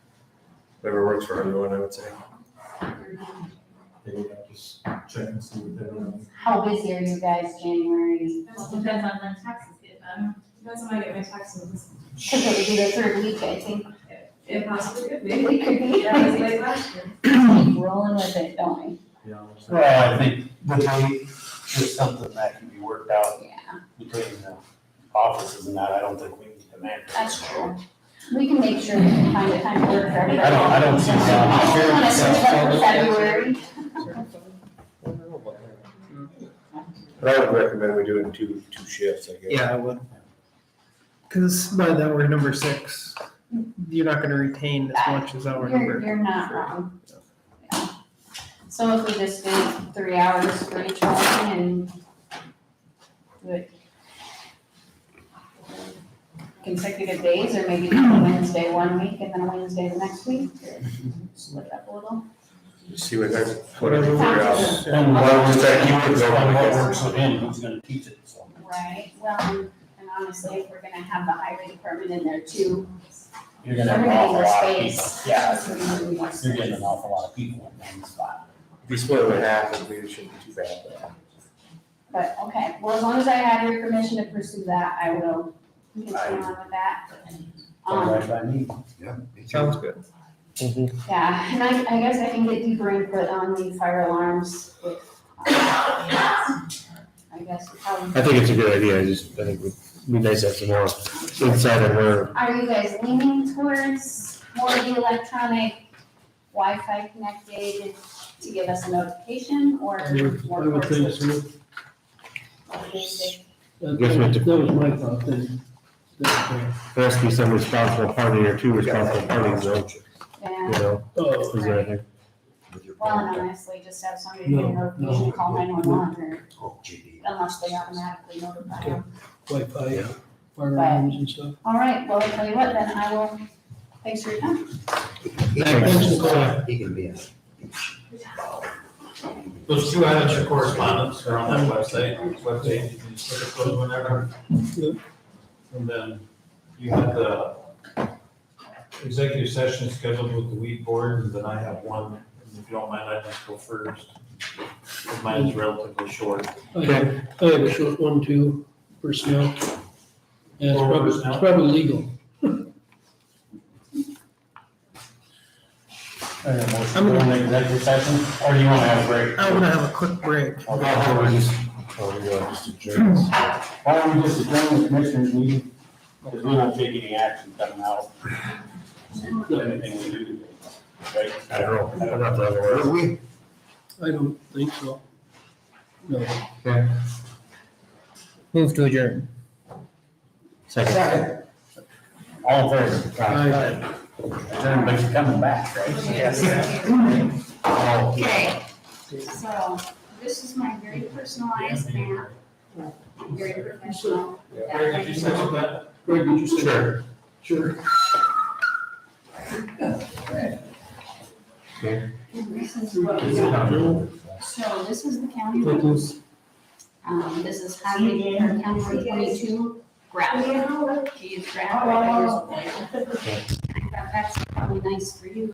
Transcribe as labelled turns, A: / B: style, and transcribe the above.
A: works for everyone, I would say.
B: Maybe I'll just check and see what they don't.
C: How busy are you guys January?
D: Well, it depends on when taxes get done,
E: Depends when I get my taxes.
C: Cause it would be the third week, I think.
E: If possible, could be.
C: We could be
E: That was late last year.
C: rolling with it, don't
B: Yeah.
F: Well, I think the date is something that can be worked out
C: we? Yeah,
F: between the offices and that, I don't think we need to manage.
C: that's true. We can make sure we can find a time to work for everybody.
F: I don't, I don't see
C: I
F: that.
C: just wanna switch it up for February.
A: But I would recommend we do it in two, two shifts, I guess.
G: Yeah, I would. Because by that we're number six, you're not gonna retain as much as our
C: You're,
G: number.
C: you're not wrong. Yeah. So if we just do three hours for each one and do it consecutive days, or maybe do a Wednesday one week and then a Wednesday the next week, or split it up a little.
A: See what, whatever we
C: Sounds
A: got.
C: good.
F: And
A: Well,
F: what
A: it's
F: was
A: like you would go-
F: what works with him, who's gonna teach it, so.
C: Right, well, and honestly, if we're gonna have the highway department in there too,
F: You're
C: we're
F: gonna have
C: gonna
F: an
C: need
F: awful
C: more
F: lot of
C: space.
F: people. Yeah,
C: Plus, we're gonna need more
F: you're getting
C: space.
F: an awful lot of people in one spot.
A: If you split it in half, it'd be- it shouldn't be too bad. though.
C: But, okay, well, as long as I have your permission to pursue that, I will continue on with that.
F: That's
C: Um,
F: right by me.
G: Sounds good.
C: yeah, and I, I guess I can get deeper input on the fire alarms with, um, I guess, um,
H: I think it's a good idea, I just, I think it'd be nice to have some more insight on where,
C: are you guys leaning towards more of the electronic Wi-Fi connected to give us a notification or
I: I would,
C: more
I: I would think
C: towards
I: so.
C: the basic?
I: That,
H: Yes, ma'am.
I: that was my thought then. That,
H: there has to be some responsible party or two responsible parties, though,
C: Yeah,
H: you know,
I: uh,
H: is there anything?
C: well, and honestly, just have somebody get
I: No,
C: a
I: no.
C: notification, call nine-one-one or
F: Oh, GD.
C: unless they automatically notify them.
I: Wi-Fi, fire alarms and stuff.
C: All right, well, I'll tell you what, then I will, thanks for your time.
F: He can be a.
B: Those two items of correspondence are on that website, webpage, you can just click those whenever. And then you have the executive session scheduled with the weed board, and then I have one, and if you don't mind, I'd just go first. Mine is relatively short.
I: I have, I have a short one too, personnel. Yeah, it's
B: Or
I: probably,
B: personnel.
I: it's probably legal.
F: Are there motions
G: I'm
F: for
G: gonna-
F: an executive session, or do you wanna have a break?
G: I'm gonna have a quick break.
F: Or Why don't we just-
A: Oh, we go just to jerks.
F: why don't we just adjourn the commissioners meeting? Because we won't take any action coming out. Anything we do today, right?
H: I don't know, I'm not the other one.
I: I don't think so. No.
G: Move to adjourn.
F: Second. All in favor?
I: Aye.
F: Everybody's coming back, right? Oh.
C: Okay, so this is my very personalized map, very professional.
B: Eric, did you second that?
I: Greg, did you say?
H: Sure.
I: Sure.
C: This is what we got. So this is the county roads. Um, this is highway, or county road twenty-two, gravel. She is gravel. That's probably nice for you.